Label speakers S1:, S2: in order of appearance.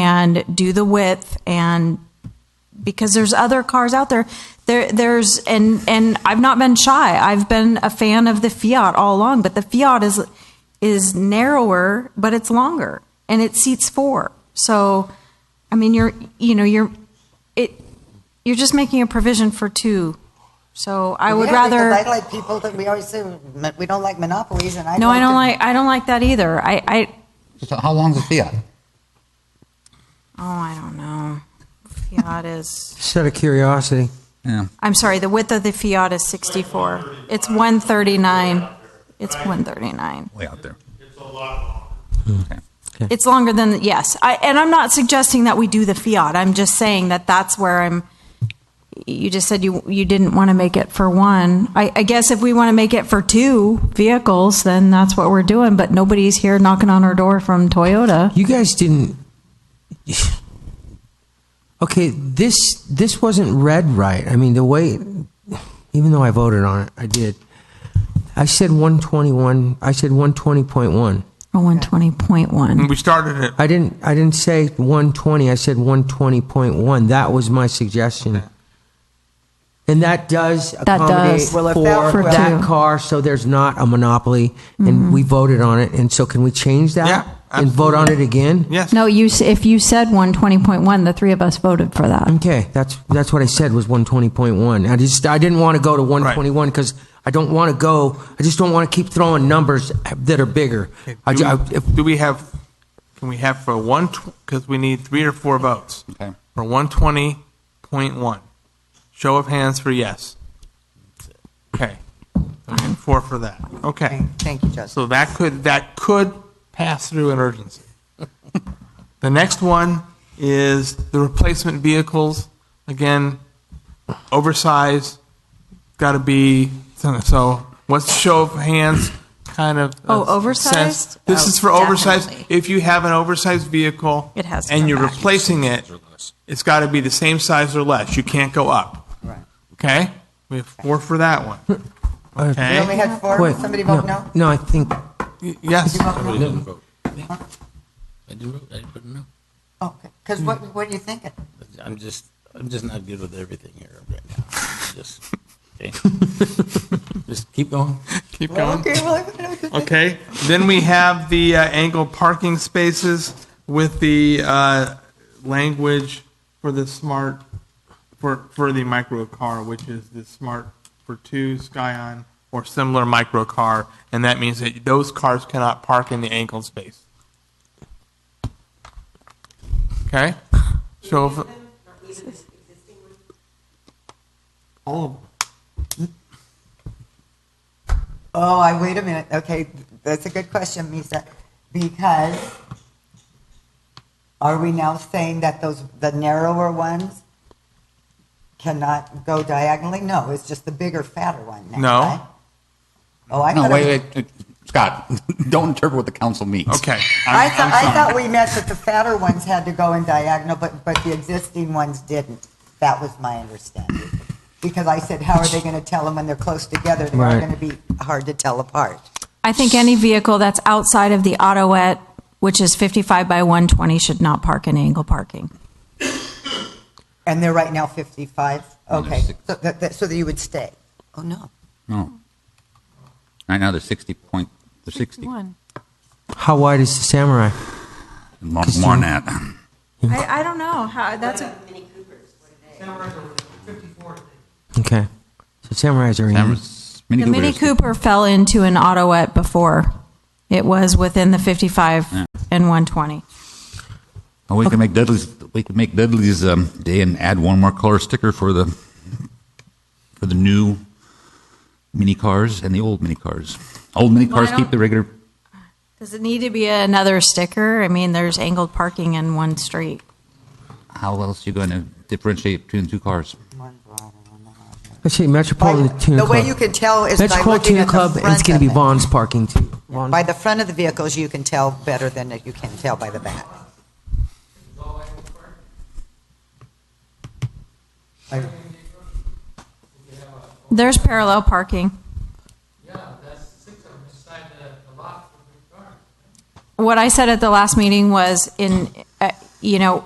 S1: and do the width and because there's other cars out there. There, there's and and I've not been shy. I've been a fan of the Fiat all along, but the Fiat is is narrower, but it's longer and it seats four. So, I mean, you're you know you're it you're just making a provision for two. So I would
S2: Yeah, because
S1: rather.
S2: I like people that we always say, "Mon- we don't like monopolies and I.
S1: No, I don't
S2: to-
S1: like. I don't like that either. I, I.
S3: So how long's the Fiat?
S1: Oh, I don't know. Fiat is.
S4: Just out of curiosity.
S3: Yeah.
S1: I'm sorry. The width of the Fiat is 64. It's 139. It's 139.
S3: Way out there.
S5: It's a lot longer.
S1: It's longer than yes. I and I'm not suggesting that we do the Fiat. I'm just saying that that's where I'm. You just said you you didn't want to make it for one. I, I guess if we want to make it for two vehicles, then that's what we're doing. But nobody's here knocking on our door from Toyota.
S4: You guys didn't. Okay, this this wasn't read right. I mean, the way, even though I voted on it, I did. I said 121. I said 120.1.
S1: Or 120.1.
S6: We started it.
S4: I didn't. I didn't say 120. I said 120.1. That was my suggestion. And that does accommodate
S1: does.
S2: Well, if
S4: for,
S2: that- For
S4: that
S1: two.
S4: car, so there's not a monopoly. And we voted on it. And so, can we change that
S6: Yeah,
S4: and vote on it again?
S6: Yes.
S1: No, you, s- if you said 120.1, the three of us voted for that.
S4: Okay, that's that's what I said was 120.1. I just I didn't want to go to 121 because I don't want to go. I just don't want to keep throwing numbers that are bigger. I, ju-
S6: Do
S4: I,
S6: we-
S4: if,
S6: Do we have, can we have for one, because we need three or four votes.
S3: Okay.
S6: For 120.1. Show of hands for yes. Okay. We need Four for that. Okay.
S2: Okay, Thank you, Justin.
S6: So that could, that could pass through an urgency. The next one is the replacement vehicles. Again, oversized, got to be, so what's show of hands kind of?
S1: Oh,
S6: uh,
S1: oversized?
S6: sense? This
S1: Oh,
S6: is for oversized.
S1: definitely.
S6: If you have an oversized vehicle.
S1: It has to
S6: And
S1: come
S6: you're
S1: back.
S6: replacing it, it's got to be the same size or less. You can't go up.
S2: Right.
S6: Okay? We have four for that one.
S2: We
S6: Okay?
S2: only had four,
S4: wait,
S2: somebody vote
S4: no,
S2: no?
S4: no, I think
S6: Yes.
S7: I didn't vote. I didn't know.
S2: Okay, because what, what are you thinking?
S7: I'm just, I'm just not good with everything here right now. Just, okay. just keep going.
S6: Keep going.
S2: Okay, well,
S6: Okay, then we have the uh, angled parking spaces with the uh, language for the smart, for, for the micro car, which is the smart for two, Scion, or similar micro car, and that means that those cars cannot park in the angled space. Okay, so. if- All of them.
S2: Oh, I, wait a minute. Okay, that's a good question, Misa, because are we now saying that those, the narrower ones cannot go diagonally? No, it's just the bigger, fatter one now,
S6: No.
S2: right? Oh, I
S3: No,
S2: thought,
S3: wait,
S2: I
S3: wait, wait, Scott, don't interpret what the council means.
S6: Okay.
S2: I thought, I thought we meant that the fatter ones had to go in diagonal, but, but the existing ones didn't. That was my understanding. Because I said, how are they going to tell them when they're close together? They're
S4: Right.
S2: going to be hard to tell apart.
S1: I think any vehicle that's outside of the autoet, which is 55 by 120, should not park in angle parking.
S2: And they're right now 55?
S3: they're
S2: Okay,
S3: six.
S2: so that, that- so that you would stay? Oh, no.
S3: No. Right now, they're 60 point, they're 60.
S4: how wide is the Samurai?
S3: More more than that.
S1: I, I don't know, how, that's a.
S4: Okay, so Samurais are in.
S3: Cameras- Mini
S1: The Mini
S3: Cooper is-
S1: Cooper fell into an autoet before. It was within the 55 and 120.
S3: Oh, we could make Dudley's, we could make Dudley's um, day and add one more color sticker for the, for the new mini cars and the old mini cars. Old mini
S1: Well, I
S3: cars keep
S1: don't-
S3: the regular,
S1: Does it need to be another sticker? I mean, there's angled parking in one street.
S3: how else you going to differentiate between the two cars?
S4: Let's see, Metropolitan
S2: By-
S4: Tuna
S2: The
S4: Club.
S2: way you can tell is by
S4: Metropolitan
S2: looking
S4: Tuna
S2: at the
S4: Club. It's
S2: front
S4: going to be
S2: of it.
S4: Vaughn's parking too. Vaughn's.
S2: By the front of the vehicles, you can tell better than that you can tell by the back.
S1: There's parallel parking. What I said at the last meeting was in, uh, you know,